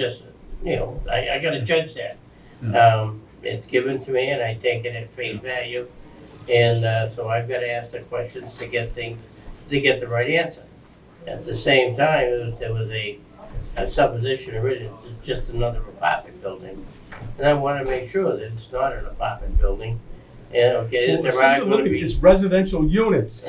just, you know, I, I gotta judge that. Mhm. Um, it's given to me and I take it at Hmm. face value. And, uh, so I've gotta ask the questions to get things, to get the right answer. At the same time, it was, there was a, a supposition originally, it's just another apartment building. And I wanna make sure that it's not an apartment building. And, okay, that Well, there are assisted gonna living be. is residential units.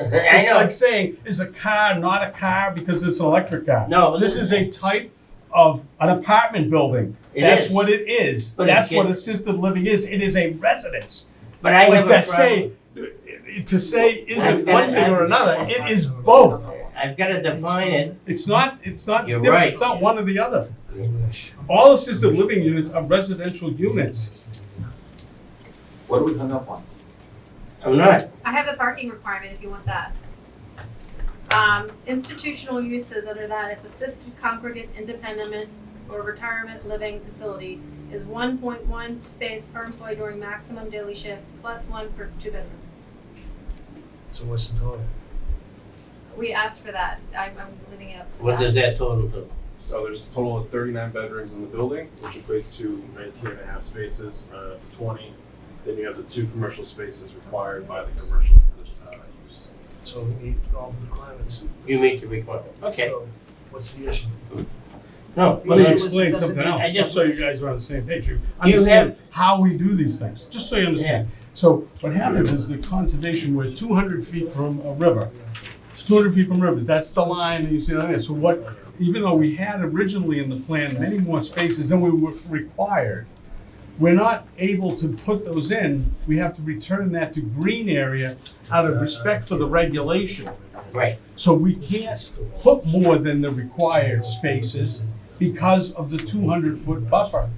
I It's know, like saying, is a car not a car because it's an electric car? No, This this- is a type of an apartment building. It That's is. what it is. But That's it's get- what assisted living is. It is a residence. but I have Like a that problem. say, to say is I've it got one it. thing or another, it is both. I've gotta define it. It's not, it's not You're different. right. It's not one or the other. All assisted living units are residential units. What do we hung up on? I'm not, I have the parking requirement if you want that. Um, institutional uses under that, it's assisted congregate independent or retirement living facility is one point one space per employee during maximum daily shift plus one per two bedrooms. So what's the total? We asked for that, I'm, I'm leaving it up to what does that total to? So there's a total of thirty-nine bedrooms in the building, which equates to 19 and a half spaces, uh, twenty. Then you have the two commercial spaces required by the commercial uh, use. So we meet all the requirements. You meet the requirement, okay, So What's the issue? no. but Let me that's- explain doesn't- something I else, just- just so you guys are on the same page. You understand how we do these things, just so you understand. So what happens is the conservation was two hundred feet from a river. It's two hundred feet from river, that's the line that you see on there. So what, even though we had originally in the plan many more spaces than we were required, we're not able to put those in. We have to return that to green area out of respect for the regulation. Right, So we can't put more than the required spaces because of the two hundred foot buffer.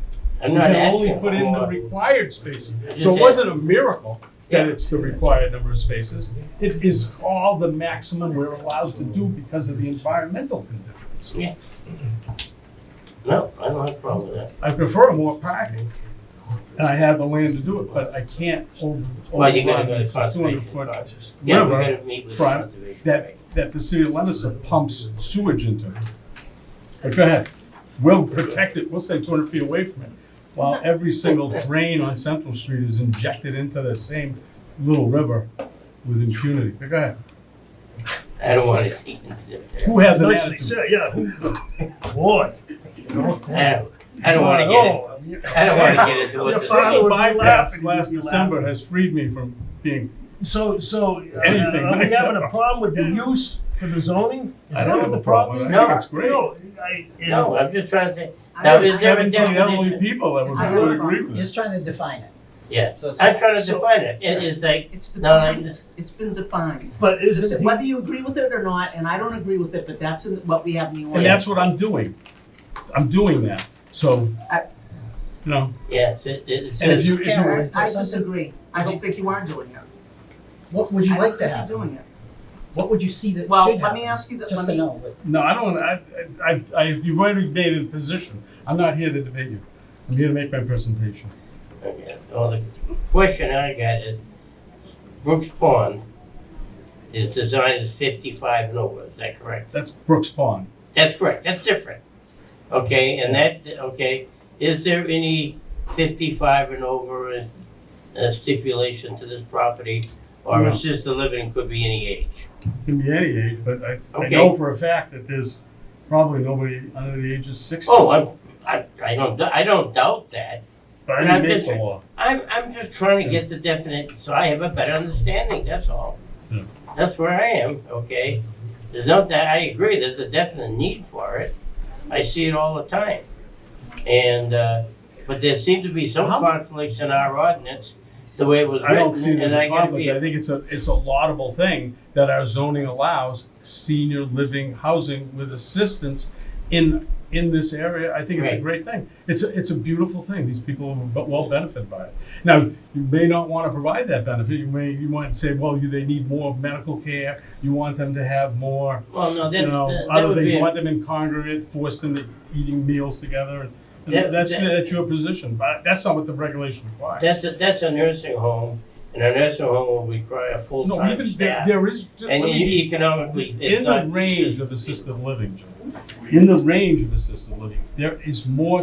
I'm not We can only asking for put in the more. required spaces. Just So that. it wasn't a miracle that Yeah. it's the required number of spaces. It is all the maximum we're allowed to do because of the environmental conditions. No, I don't have a problem with that. I prefer more parking, and I have the land to do it, but I can't over, Well, you gotta go to overrun two conservation hundred foot first. Yeah, we river gotta meet with front conservation. that, that the city of Lemonster pumps sewage into. But go ahead, we'll protect it, we'll stay two hundred feet away from it, while every single drain on Central Street is injected into the same little river with impunity. But go ahead, I don't wanna see it there. who has an Nice, attitude? yeah, boy. I Oh, don't, I don't wanna get Oh. it, I don't wanna get into what Your this father is. would- Bypass laughing, last you'd be December has freed me from being, So, so, uh, Anything. are we having a problem with the use for the zoning? Is I don't that have what a the problem problem. is? I think it's great. No, I, you No, know, I'm just trying to, think. I now don't- is there a seventeen elderly definition? people that would I don't know. agree with Just trying to define it. Yeah. So it's, I'm trying to So- define it, it is like, it's No, no, defined, it's, it's been defined. but isn't he, Whether you agree with it or not, and I don't agree with it, but that's in, what we have in the And ordinance. that's what I'm doing, I'm doing that, so, I- you know, yeah, it, it and if says, you, if you. Karen, were- I- I something- disagree. I don't think you are doing it. What would you I like don't to think you're happen? Doing it. What would you see that Well, should let happen? me ask you, the- Just let to me, know, but No, I don't, I, I, I, you've already made a position. I'm not here to debate you. I'm here to make my presentation. okay, well, the question I got is, Brooks Pond is designed as fifty-five and over, is that correct? That's Brooks Pond. That's correct, that's different. Okay, and that, okay, is there any fifty-five and over is- uh, stipulation to this property? Or No. assisted living could be any age? Can be any age, but I, I know Okay. for a fact that there's probably nobody under the age of sixty. Oh, I'm, I, I don't, I don't doubt that. But and I I'm didn't make the just- law. I'm, I'm just trying to get the definite, so I have a better understanding, that's all. Yeah. That's where I am, okay? There's no, doubt- I agree, there's a definite need for it. I see it all the time. And, uh, but there seem to be some How- conflicts in our ordinance, the way it was I don't see written, it as and I a gotta be. conflict. I think it's a, it's a laudable thing that our zoning allows senior living housing with assistance in, in this area. I think it's a Right. great thing. It's, a it's a beautiful thing. These people will be- will benefit by it. Now, you may not want to provide that benefit. You may, you might say, well, you- they need more medical care. You want them to have more, Well, no, you that's, know, that that other would things. be, You a- want them in congregate, force them to eating meals together. That- And That's, that- that's your position, but that's not what the regulation requires. that's, a- that's a nursing home, and a nursing home will require No, full-time even there, staff. there is. let And me be- e- economically, it's in the not- range of assisted living, Joe. In the range of assisted living, there is more